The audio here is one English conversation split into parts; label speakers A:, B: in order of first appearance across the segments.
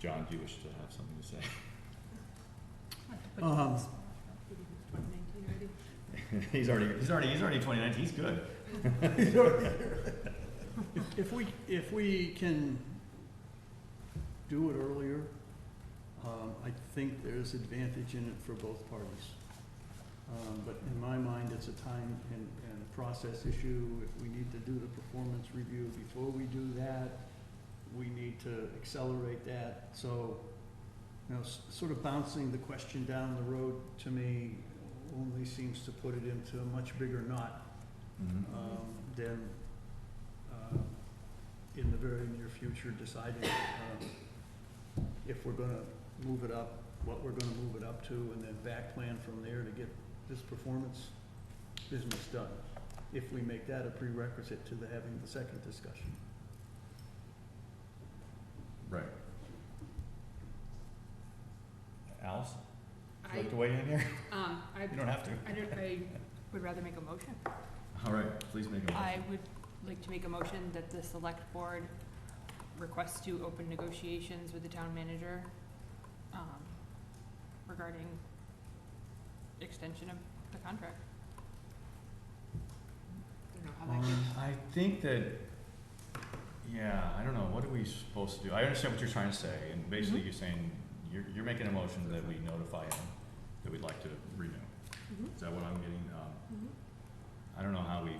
A: John, do you wish to have something to say?
B: Um,
A: He's already, he's already, he's already twenty nineteen, he's good.
B: If- If we, if we can do it earlier, um, I think there's advantage in it for both parties. Um, But in my mind, it's a time and, and process issue. If we need to do the performance review before we do that, we need to accelerate that. So, you know, s- sort of bouncing the question down the road to me only seems to put it into a much bigger knot
A: Mm-hmm,
B: um, then, um, in the very near future, deciding um, if we're gonna move it up, what we're gonna move it up to, and then back plan from there to get this performance business done, if we make that a prerequisite to the, having the second discussion.
A: Right. Alice, would you
C: I,
A: like to weigh in here?
C: um, I,
A: You don't have to.
C: I don't, I would rather make a motion.
A: All right, please make a
C: I
A: motion.
C: would like to make a motion that the select board requests to open negotiations with the town manager, um, regarding extension of the contract. I don't know how that
A: Um,
C: gets-
A: I think that, yeah, I don't know, what are we supposed to do? I understand what you're trying to say, and basically
C: Mhm.
A: you're saying, you're, you're making a motion that we notify him that we'd like to renew.
C: Mhm.
A: Is that what I'm getting? Um,
C: Mm-hmm.
A: I don't know how we,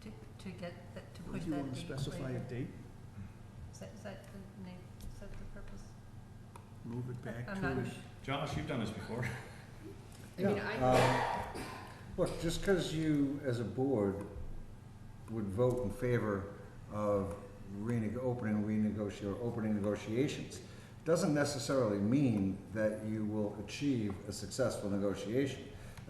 D: To, to get, that- to
B: Do
D: push
B: you
D: that
B: wanna
D: date
B: specify a
D: later?
B: date,
D: Is that, is that the name, is that the purpose?
B: move it back to?
D: I'm not,
A: Josh, you've done this before.
C: I mean,
E: Yeah, um, Look, just because you, as a board, would vote in favor of reneg, opening, renegotiate, or opening negotiations, doesn't necessarily mean that you will achieve a successful negotiation.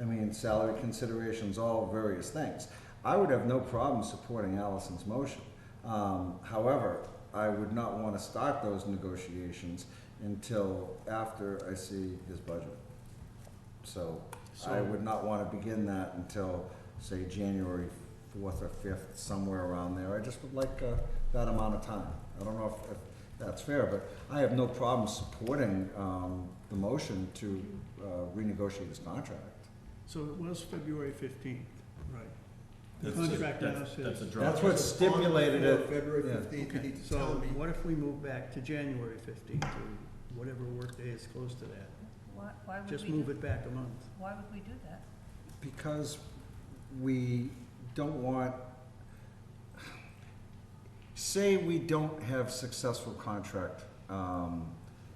E: I mean, salary considerations, all various things. I would have no problem supporting Allison's motion. Um, however, I would not want to start those negotiations until after I see his budget. So I
B: So-
E: would not want to begin that until, say, January fourth or fifth, somewhere around there. I just would like, uh, that amount of time. I don't know if, if that's fair, but I have no problem supporting, um, the motion to, uh, renegotiate his contract.
B: So it was February fifteenth, right? The
A: That's a-
B: contract
A: that's-
B: now says-
A: That's a draw.
E: That's what's stipulated
F: On or
E: it.
F: before February
E: yeah.
F: fifteenth, you
B: Okay,
F: need to
B: so
F: tell me.
B: what if we move back to January fifteenth, or whatever workday is close to that?
D: why, why would
B: Just
D: we
B: move
D: do,
B: it back a month.
D: why would we do that?
E: Because we don't want, say we don't have successful contract um,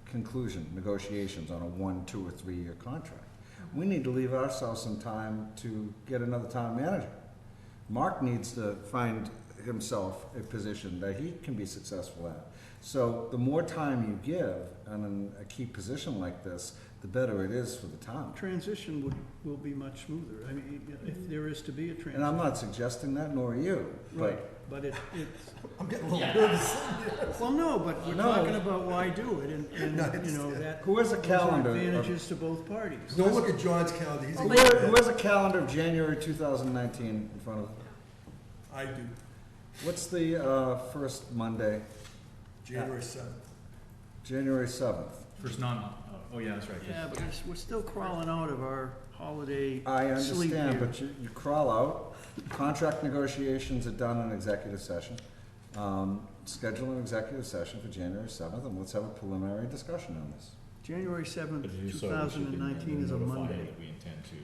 E: conclusion, negotiations on a one, two, or three-year contract. We need to leave ourselves some time to get another town manager. Mark needs to find himself a position that he can be successful at. So the more time you give on a key position like this, the better it is for the town.
B: Transition would, will be much smoother. I mean, if there is to be a transition.
E: And I'm not suggesting that, nor are you,
B: Right,
E: but
B: but it, it's,
F: I'm getting a little nervous.
B: well, no, but we're
E: No.
B: talking about why do it, and,
F: No,
B: and, you know,
F: it's-
B: that.
E: who has a
B: those are
E: calendar? of-
B: Advantages to both parties.
F: Don't look at John's calendar, he's.
E: Who has- who has a calendar of January 2019 in front of,
F: I do,
E: what's the uh, first Monday?
F: January seventh.
E: January 7th.
A: First non, oh, yeah, that's right. 'cause-
B: Yeah, but it's- we're still crawling out of our holiday
E: I
B: sleep
E: understand,
B: here.
E: but you, you crawl out, contract negotiations are done in executive session. Um, Schedule an executive session for January 7th, and let's have a preliminary discussion on this.
B: January seventh,
A: But if you
B: two
A: so, we
B: thousand
A: should be
B: and nineteen is a
A: notifying
B: Monday.
A: that We intend to,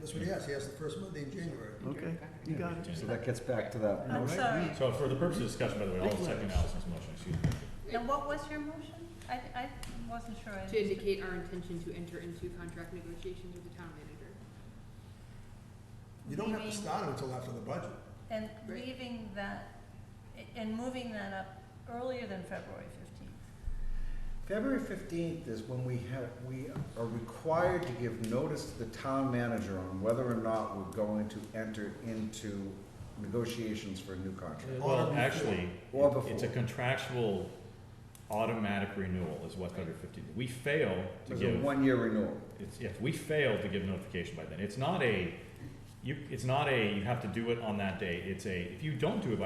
F: That's what he has, he has the first Monday in January.
B: Okay, you
A: Yeah,
B: got
A: we
B: it.
A: can.
E: So that gets back to that.
B: All
D: I'm
B: right.
D: sorry,
A: so for the purpose of discussion, by the way, I'll
B: Big
A: second
B: letters.
A: Allison's motion, excuse me.
D: now what was your motion? I, I wasn't sure I
G: To
D: understood.
G: indicate our intention to enter into contract negotiations with the town manager.
F: You don't have to
D: Leaving-
F: start it until after the budget.
D: And
G: Right.
D: leaving that, and moving that up earlier than February fifteenth.
E: February fifteenth is when we have, we are required to give notice to the town manager on whether or not we're going to enter into negotiations for a new contract.
A: Well,
F: Or
A: actually,
E: Or
A: it- it's a
E: before.
A: contractual automatic renewal is what February fifteenth, we fail to
E: It's a
A: give,
E: one-year renewal.
A: it's, if we fail to give notification by then, it's not a, you, it's not a, you have to do it on that day, it's a, if you don't do it by